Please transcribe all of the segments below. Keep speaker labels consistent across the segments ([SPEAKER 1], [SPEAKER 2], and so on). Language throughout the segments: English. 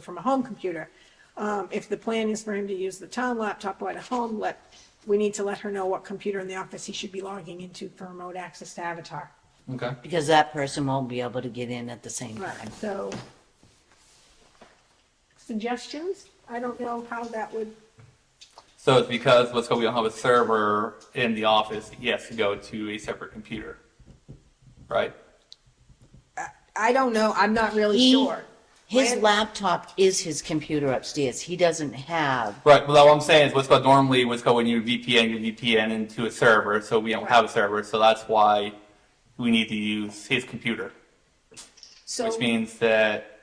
[SPEAKER 1] from a home computer. Um, if the plan is for him to use the town laptop while at home, let, we need to let her know what computer in the office he should be logging into for remote access to Avatar.
[SPEAKER 2] Okay.
[SPEAKER 3] Because that person won't be able to get in at the same time.
[SPEAKER 1] Right, so. Suggestions? I don't know how that would,
[SPEAKER 2] So it's because, let's go, we don't have a server in the office, he has to go to a separate computer, right?
[SPEAKER 1] I don't know, I'm not really
[SPEAKER 3] He-
[SPEAKER 1] sure.
[SPEAKER 3] His
[SPEAKER 1] When-
[SPEAKER 3] laptop is his computer upstairs. He doesn't have,
[SPEAKER 2] Right, well, what I'm saying is, what's called normally, what's called when you VPN, you VPN into a server, so we don't have a server, so that's why we need to use his computer,
[SPEAKER 1] So,
[SPEAKER 2] which means that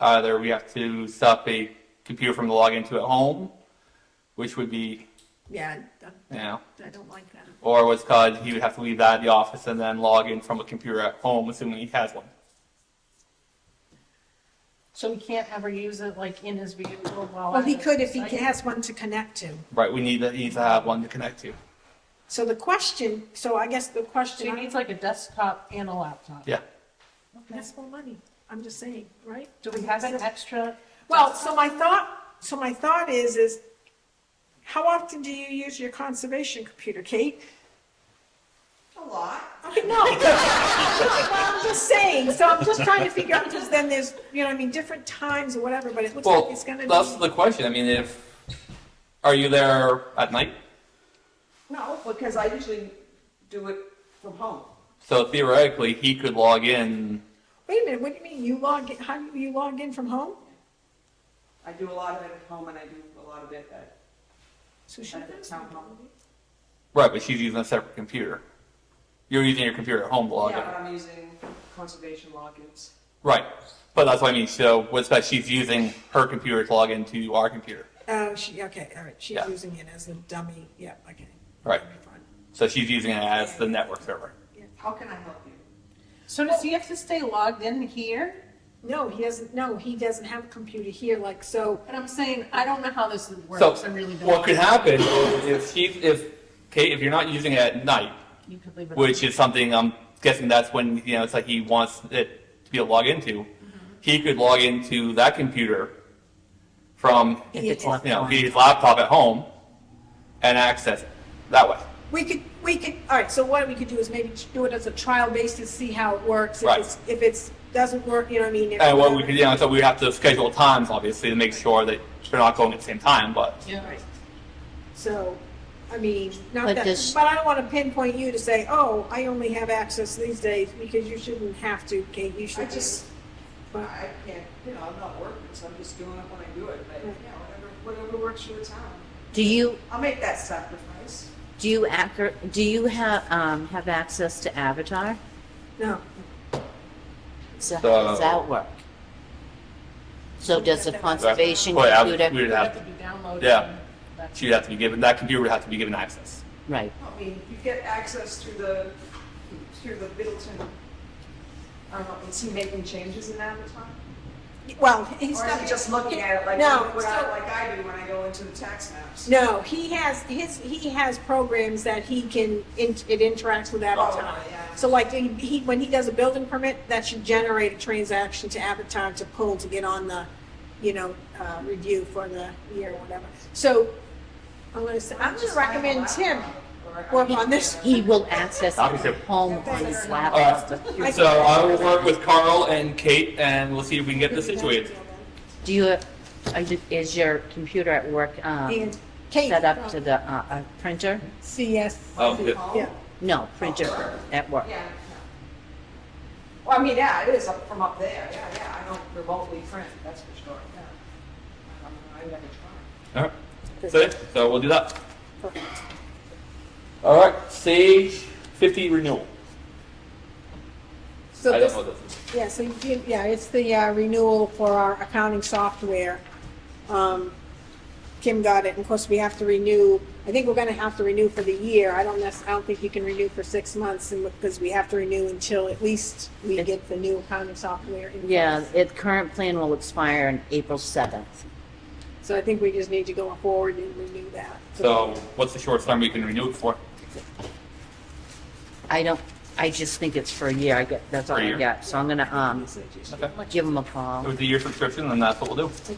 [SPEAKER 2] either we have to stop a computer from logging into at home, which would be,
[SPEAKER 1] yeah, I-
[SPEAKER 2] you know,
[SPEAKER 1] I don't like that.
[SPEAKER 2] or what's called, he would have to leave that at the office and then log in from a computer at home, assuming he has one.
[SPEAKER 4] So he can't ever use it like in his vehicle while.
[SPEAKER 1] Well,
[SPEAKER 4] at
[SPEAKER 1] he
[SPEAKER 4] the
[SPEAKER 1] could if he
[SPEAKER 4] site?
[SPEAKER 1] has one to connect to.
[SPEAKER 2] Right, we need, he needs to have one to connect to.
[SPEAKER 1] So the question, so I guess the
[SPEAKER 4] So
[SPEAKER 1] question.
[SPEAKER 4] he needs like a desktop and a laptop.
[SPEAKER 2] Yeah.
[SPEAKER 1] That's more money, I'm just saying, right?
[SPEAKER 4] Do we have an extra?
[SPEAKER 1] Well, so my thought, so my thought is, is how often do you use your conservation computer, Kate?
[SPEAKER 5] A lot.
[SPEAKER 1] Okay, no. Well, I'm just saying, so I'm just trying to figure out, because then there's, you know, I mean, different times or whatever, but it looks like
[SPEAKER 2] Well,
[SPEAKER 1] it's gonna
[SPEAKER 2] that's
[SPEAKER 1] be,
[SPEAKER 2] the question. I mean, if are you there at night?
[SPEAKER 5] No, because I usually do it from home.
[SPEAKER 2] So theoretically, he could log in.
[SPEAKER 1] wait a minute, what do you mean, you log, in? how do you log in from home?
[SPEAKER 5] I do a lot of it at home and I do a lot of it at,
[SPEAKER 1] So she
[SPEAKER 5] at the
[SPEAKER 1] does.
[SPEAKER 5] town hall.
[SPEAKER 2] Right, but she's using a separate computer. You're using your computer at home to log
[SPEAKER 5] Yeah,
[SPEAKER 2] in.
[SPEAKER 5] but I'm using conservation logins.
[SPEAKER 2] Right, but that's what I mean. So what's that? She's using her computer to log into our computer.
[SPEAKER 1] Oh, she, okay, all right, she's
[SPEAKER 2] Yeah.
[SPEAKER 1] using it as a dummy, yeah, okay.
[SPEAKER 2] Right. So she's using it as the network server.
[SPEAKER 5] How can I help you?
[SPEAKER 4] So does he have to stay logged in here?
[SPEAKER 1] No, he doesn't, no, he doesn't have a computer here, like, so,
[SPEAKER 4] But I'm saying, I don't know how this
[SPEAKER 2] So
[SPEAKER 4] works. I really don't.
[SPEAKER 2] what could happen is if she if Kate if you're not using it at night,
[SPEAKER 4] You could leave it.
[SPEAKER 2] which is something I'm guessing that's when you know it's like he wants it to be able to log into. He could log into that computer from
[SPEAKER 3] if it's
[SPEAKER 1] Yeah.
[SPEAKER 3] left
[SPEAKER 2] you know
[SPEAKER 3] on.
[SPEAKER 2] his laptop at home and access it that way.
[SPEAKER 1] We could, we could, all right, so what we could do is maybe do it as a trial basis, see how it works. If
[SPEAKER 2] Right.
[SPEAKER 1] it's, if it's, doesn't work, you know what I mean? if-
[SPEAKER 2] And what we could you know so we have to schedule times obviously to make sure that they're not going at the same time. But
[SPEAKER 4] Yeah.
[SPEAKER 1] So, I mean, not
[SPEAKER 3] But
[SPEAKER 1] that,
[SPEAKER 3] does-
[SPEAKER 1] but I don't want to pinpoint you to say, oh, I only have access these days, because you shouldn't have to, Kate, you
[SPEAKER 5] I
[SPEAKER 1] should just.
[SPEAKER 5] just, I can't, you know, I'm not working, so I'm just doing it when I do it, but, you know, whatever, whatever works for the town.
[SPEAKER 3] Do you,
[SPEAKER 5] I'll make that sacrifice.
[SPEAKER 3] do you accur, do you have, um, have access to Avatar?
[SPEAKER 1] No,
[SPEAKER 3] So how does
[SPEAKER 2] So-
[SPEAKER 3] that work? So does the conservation
[SPEAKER 2] Well, yeah, we
[SPEAKER 3] computer,
[SPEAKER 2] would
[SPEAKER 4] It'd have
[SPEAKER 2] have
[SPEAKER 4] to be downloaded.
[SPEAKER 2] Yeah.
[SPEAKER 4] and that's-
[SPEAKER 2] she'd have to be given that computer would have to be given access.
[SPEAKER 3] right,
[SPEAKER 5] I mean, you get access through the, through the Middleton, I don't know, is he making changes in Avatar?
[SPEAKER 1] well,
[SPEAKER 5] Or
[SPEAKER 1] he's
[SPEAKER 5] is
[SPEAKER 1] not.
[SPEAKER 5] he just looking at it like,
[SPEAKER 1] No,
[SPEAKER 5] what
[SPEAKER 1] so-
[SPEAKER 5] I, like I do when I go into the tax maps?
[SPEAKER 1] No, he has, his, he has programs that he can, in- it interacts with Avatar.
[SPEAKER 5] Oh, yeah.
[SPEAKER 1] So like, he- he, when he does a building permit, that should generate a transaction to Avatar to pull to get on the, you know, uh, review for the year or whatever. So, I'm gonna say, I'm gonna recommend Tim work on this.
[SPEAKER 3] he will access
[SPEAKER 2] Obviously.
[SPEAKER 3] it from home on his laptop.
[SPEAKER 1] I-
[SPEAKER 2] So I will work with Carl and Kate and we'll see if we can get this situated.
[SPEAKER 3] Do you, are you- is your computer at work, um,
[SPEAKER 1] And Kate.
[SPEAKER 3] set up to the, uh, uh, printer?
[SPEAKER 1] CS.
[SPEAKER 2] Oh, good.
[SPEAKER 1] Yeah.
[SPEAKER 3] No, printer at work.
[SPEAKER 5] Yeah. Well, I mean, yeah, it is up from up there, yeah, yeah, I don't remotely print, that's for sure, yeah. I mean, I never try.
[SPEAKER 2] All right. So, so we'll do that. All right, Sage 50 renewal.
[SPEAKER 1] So
[SPEAKER 2] I
[SPEAKER 1] this-
[SPEAKER 2] don't know what this is.
[SPEAKER 1] Yeah, so, you- yeah, it's the uh, renewal for our accounting software. Um, Kim got it, and of course, we have to renew, I think we're gonna have to renew for the year. I don't necess, I don't think you can renew for six months, and, because we have to renew until at least we get the new accounting software in place.
[SPEAKER 3] Yeah, it, current plan will expire on April seventh.
[SPEAKER 1] So I think we just need to go forward and renew that.
[SPEAKER 2] So what's the shortest term we can renew it for?
[SPEAKER 3] I don't, I just think it's for a year. I get, that's all
[SPEAKER 2] For a
[SPEAKER 3] I
[SPEAKER 2] year.
[SPEAKER 3] get. So I'm gonna, um,
[SPEAKER 2] Okay.
[SPEAKER 3] give them a call.
[SPEAKER 2] It was a year subscription, and that's what we'll do.